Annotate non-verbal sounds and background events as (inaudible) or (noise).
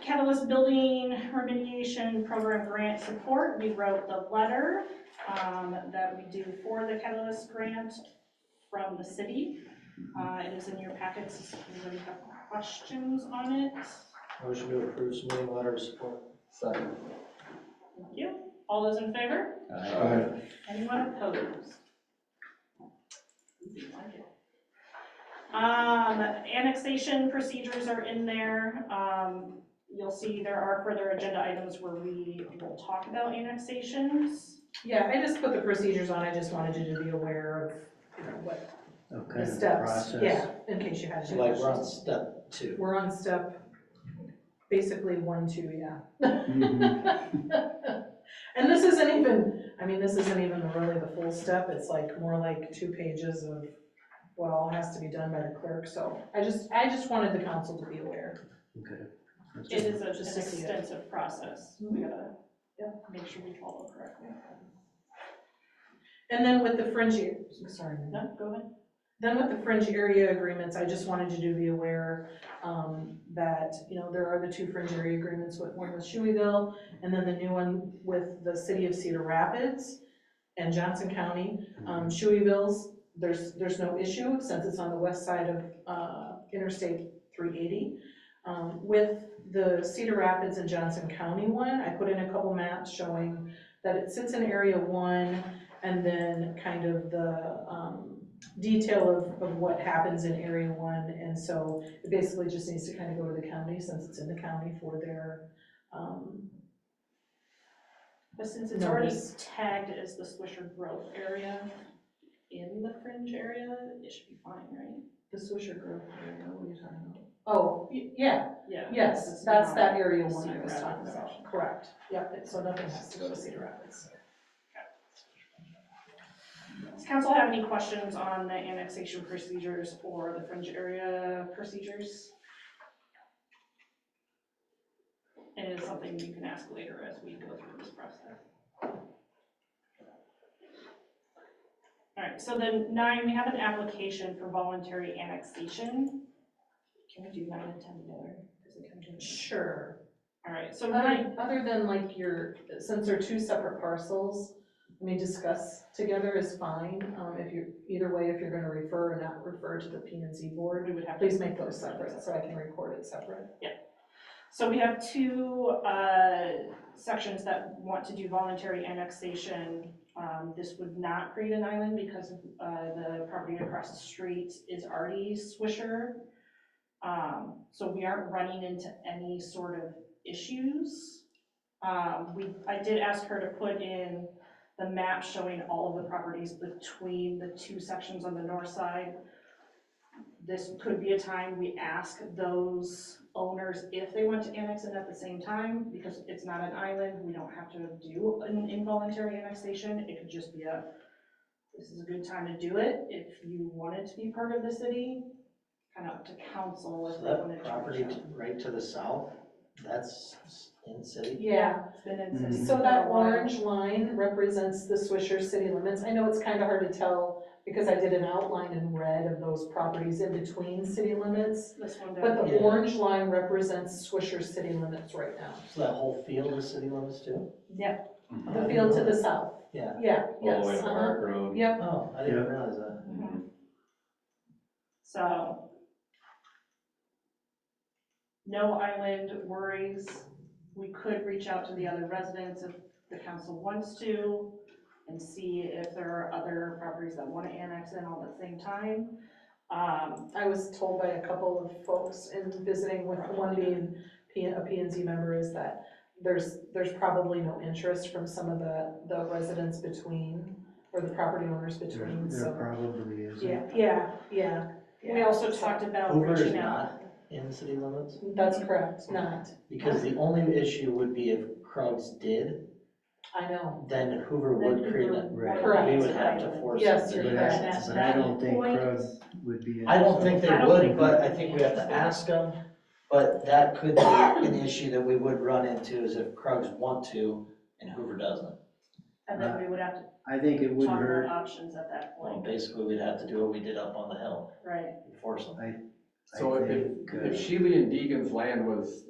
Catalyst Building Remediation Program Grant Support, we wrote the letter um, that we do for the Catalyst Grant from the city. Uh, It is in your packets, if you have questions on it. Motion to approve submitting letter of support. Second. Thank you. All those in favor? Aye. Anyone opposed? Um, annexation procedures are in there. Um, you'll see there are further agenda items where we will talk about annexations. Yeah, I just put the procedures on, I just wanted you to be aware of, you know, what Okay. the steps, yeah, in case you had So any like questions. we're on step two. We're on step, basically one, two, yeah. (laughs) Mm-hmm. And this isn't even, I mean, this isn't even really the full step, it's like more like two pages of what all has to be done by the clerk, so I just, I just wanted the council to be aware. Okay. That's It Mm-hmm. it. is a- an Just to see it. extensive process. We gotta make sure we follow correctly. And then with the fringe, I'm sorry, no? No, go ahead. Then with the fringe area agreements, I just wanted you to be aware um, that, you know, there are the two fringe area agreements, with- one with Shoeyville, and then the new one with the city of Cedar Rapids and Johnson County. Mm-hmm. Um, Shoeyville's, there's, there's no issue since it's on the west side of uh, Interstate 380. Um, With the Cedar Rapids and Johnson County one, I put in a couple maps showing that it sits in Area 1 and then kind of the um, detail of, of what happens in Area One, and so it basically just needs to kind of go to the county, since it's in the county for their, um, But since it's already Notice. tagged as the Swisher Grove area in the fringe area, it should be fine, right? the Swisher Grove area, what are you talking about? Oh, y- yeah, Yeah. because yes, it's that's not- that Area One I Cedar was talking Rapids section. about, correct, yep, it- so nothing has to go to Cedar Rapids. Does council have any questions on the annexation procedures or the fringe area procedures? It is something you can ask later as we go through this process. All right, so then nine, we have an application for voluntary annexation. Can we do nine and ten together? Is it kind of- Sure, All right, so nine, other, other than like your, since they're two separate parcels, I mean, discuss together is fine, um, if you, either way, if you're gonna refer or not refer to the P and Z board, we would have. to- Please make those separate, so I can record it separate. So we have two uh, sections that want to do voluntary annexation. Um, This would not create an island because uh, the property across the street is already Swisher. Um, So we aren't running into any sort of issues. Um, We, I did ask her to put in the map showing all of the properties between the two sections on the north side this could be a time we ask those owners if they want to annex it at the same time, because it's not an island, we don't have to do an involuntary annexation, it could just be a, this is a good time to do it, if you wanted to be part of the city, kind of up to council So if they wanted that to. property to- right to the south, that's in city? Yeah, it's been in Mm-hmm. city. So that for a while. orange line represents the Swisher city limits. I know it's kind of hard to tell because I did an outline in red of those properties in between city limits, This one but down the here. Yeah. orange line represents Swisher city limits right now. So that whole field is city limits too? Yep, The field to the south. Yeah. Yeah, All the way yes, to uh-huh, Park Road. yep. Oh, I didn't realize that. mhm. so. No island worries. We could reach out to the other residents if the council wants to and see if there are other properties that want to annex in all at the same time. Um, I was told by a couple of folks in visiting with one being P, a P and Z member is that there's, there's probably no interest from some of the, the residents between, or the property owners between, so. probably is. Yeah, yeah, yeah. We also talked about Hoover is reaching out. not in city limits? That's correct, not, Because the only issue would be if Krugs did, I know, then Hoover would create it. Right. Correct. We would have to force it. Yes, But you're I, correct. but I don't think Point. Krug would be. in, I don't so- think they I don't would, think- but I think we have to ask them. But that could be an issue that we would run into is if Krugs want to and Hoover doesn't. And then we would have to I think it would talk about hurt, options at that Well, point, basically, we'd have to do what we did up on the hill, right? force them. So I if, think, if uh, Sheely and Deegan's land was